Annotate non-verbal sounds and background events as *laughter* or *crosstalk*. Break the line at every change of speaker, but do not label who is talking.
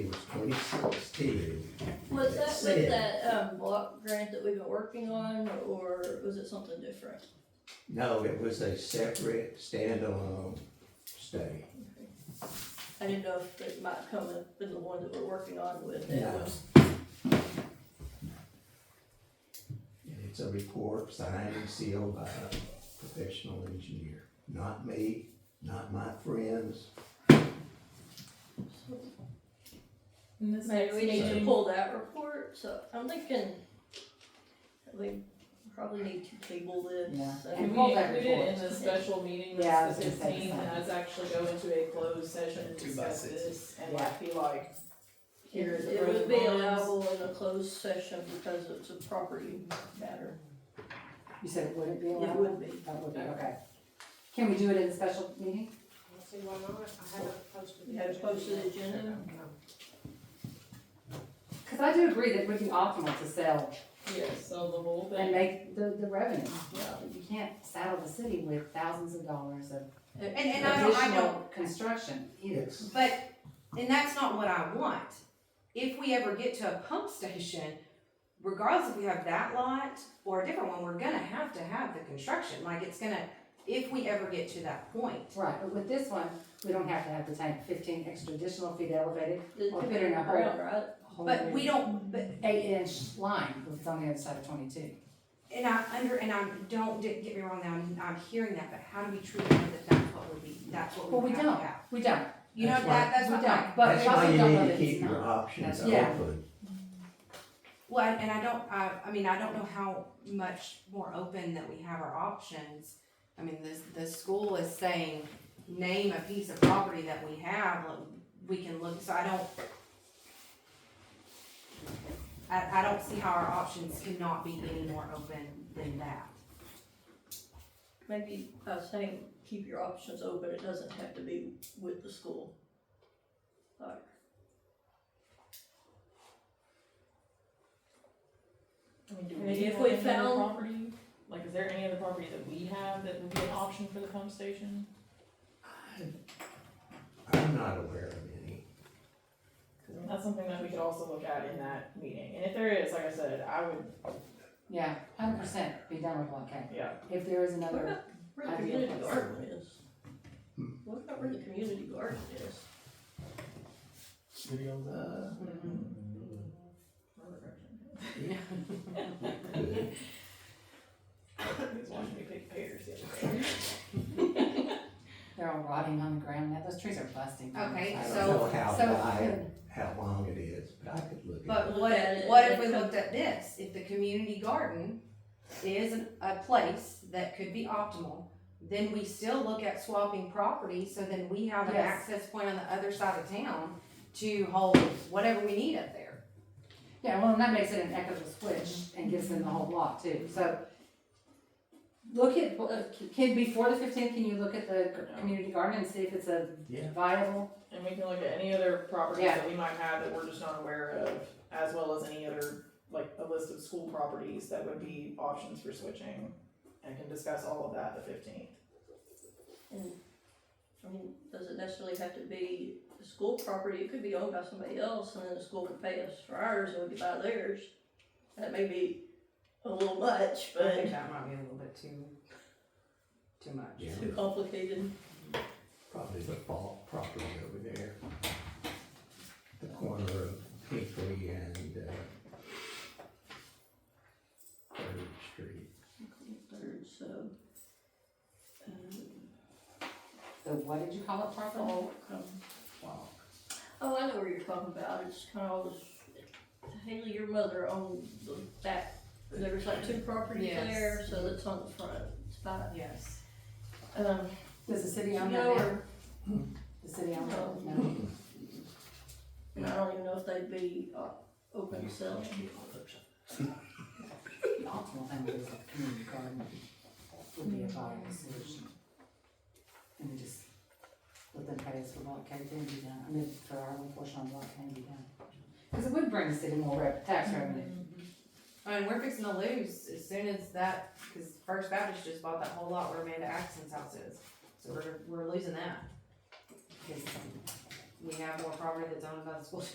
sixteen.
Was that with
Said.
that, um, block grant that we've been working on, or was it something different?
No, it was a separate standalone study.
I didn't know if it might come up in the one that we're working on with
No.
that was,
And It's a report signed and sealed by a professional engineer, not me, not my friends.
And this
maybe
next
we need to
meeting,
pull that report, so I'm thinking that we probably need to table this.
Yeah.
we
and-
And pull that
included in
report.
the special meeting, which
Yeah, I
is the
was gonna say the
fifteenth, and
same.
us actually go into a closed session and
Two by
discuss
sixes.
this, and
Yeah.
like be like, here is the
It
pros
would
and
be
cons.
allowable in a closed session because it's a property matter.
You said it wouldn't be
It
allowed?
would be.
That would be, okay. Can we do it in a special meeting?
I'll see why not, I haven't posted. the
You had a posted agenda?
Cause I do agree that it would be optimal to sell
Yes, so the whole thing,
and make the, the revenue.
Yeah.
But You can't saddle the city with thousands of dollars of
And, and I don't, I don't,
additional construction either.
It's
but, and that's not what I want. If we ever get to a pump station, regardless if we have that lot or a different one, we're gonna have to have the construction, like it's gonna, if we ever get to that point.
Right, but with this one, we don't have to have the tank fifteen extra additional feet elevated,
It
Or
could be
put in a hole.
underground, right?
whole
But we don't, but,
eight inch line, if it's on the other side of twenty-two.
and I under, and I don't, di- get me wrong now, I'm, I'm hearing that, but how do we truly know that that's what would be, that's what
Well,
we
we
would have to have?
don't, we don't,
You know,
That's
that, that's
we
what
don't,
I,
but we
That's why
also
you
don't know
need to
that it's
keep your
not.
options
That's- yeah.
open.
well, and I don't, I, I mean, I don't know how much more open that we have our options. I mean, the, the school is saying, name a piece of property that we have, like, we can look, so I don't. I, I don't see how our options cannot be any more open than that.
Maybe I was saying, keep your options open, it doesn't have to be with the school. Like,
I mean, do
And
we
if
have
we
any other
found-
property? Like, is there any other property that we have that would be an option for the pump station?
I'm not aware of any.
Cause that's something that we could also look at in that meeting, and if there is, like I said, I would,
Yeah, hundred percent, be done with block K.
yeah,
If there is
What
another,
about where the
I think
community
that's-
garden is?
Hmm.
What about where the community garden is?
*laughs*
Uh,
I was watching me pick pears the other day.
they're all rotting on the ground now, those trees are busting. down.
Okay,
I don't
So-
know how
so-
wide, how long it is, but I could look at it.
But what, what if we looked at this, if the community garden is an- a place that could be optimal, then we still look at swapping property, so then we have an
Yes.
access point on the other side of town to hold whatever we need up there.
Yeah, well, and that makes it an equitable switch and gives them the whole block too, so. Look at, uh, can, before the fifteenth, can you look at the g- community garden and see if it's a
Yeah.
viable?
And we can look at any other properties
Yeah.
that we might have that we're just not aware of, as well as any other, like a list of school properties that would be options for switching. And can discuss all of that the fifteenth.
And, I mean, does it necessarily have to be the school property, it could be owned by somebody else, and then the school could pay us for ours, and we could buy theirs. That may be a little much,
I think
but
that might be a little bit too, too much.
Yeah,
too complicated.
probably the fault property over there. The corner of Hickory and, uh, Third Street.
Third, so. um,
The, what did you call it properly?
Oh, um, wow. Oh, I know where you're talking about, it's kind of all this, Haley, your mother owned the back, there was like two properties
Yes.
there, so it's on the front, it's about,
Yes.
um,
Does the city
you
own
know,
that now?
or,
The city own that?
No.
No.
and I don't even know if they'd be, uh, open to selling.
The optimal thing would be like a community garden would be a viable solution. And we just let them pay us for block cave and be done, I mean, for our own portion on block cave and be done. Cause it would bring the city more rev, tax revenue.
I mean, we're fixing to lose as soon as that, cause First Baptist just bought that whole lot where Amanda Axon's house is, so we're, we're losing that. Cause we have more property that's owned by the school